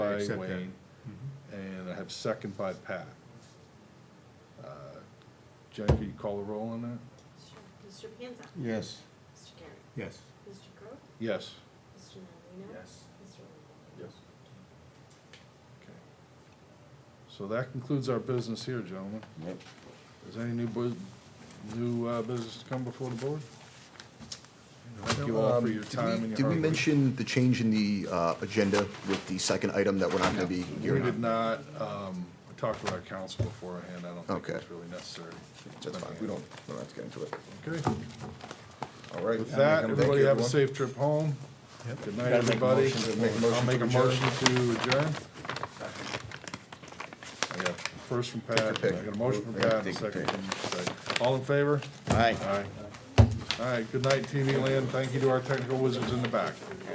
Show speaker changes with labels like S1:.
S1: by
S2: Second.
S1: Wayne, and I have second by Pat. Uh, Jennifer, you call the roll on that?
S3: Mr. Panza?
S2: Yes.
S3: Mr. Garrett?
S2: Yes.
S3: Mr. Crowe?
S1: Yes.
S3: Mr. Marino?
S4: Yes.
S3: Mr. Lundey?
S1: Yes. Okay. So that concludes our business here, gentlemen.
S4: Yep.
S1: Is there any new bu, new, uh, business to come before the board? Thank you all for
S5: Um,
S1: your
S5: did we-
S1: time and your hard work.
S5: Did we mention the change in the uh, agenda with the second item that we're not going to be
S1: We
S5: hearing?
S1: did not, um, we talked with our council beforehand, I don't think
S5: Okay.
S1: it's really necessary.
S5: That's fine, we don't, we don't have to get into it.
S1: Okay,
S5: All right.
S1: with that,
S5: Thank you,
S1: everybody have a
S5: everyone.
S1: safe trip home. Good night,
S4: Gotta make a
S1: everybody.
S4: motion
S5: to- Make a
S1: I'll make a
S5: motion to
S1: motion to adjourn. I got first from Pat, I
S5: pick.
S1: got a motion from
S5: Yeah,
S1: Pat,
S5: take your
S1: second from, Zach. all in favor?
S4: Aye.
S1: Aye. All right, good night, TV land, thank you to our technical wizards in the back.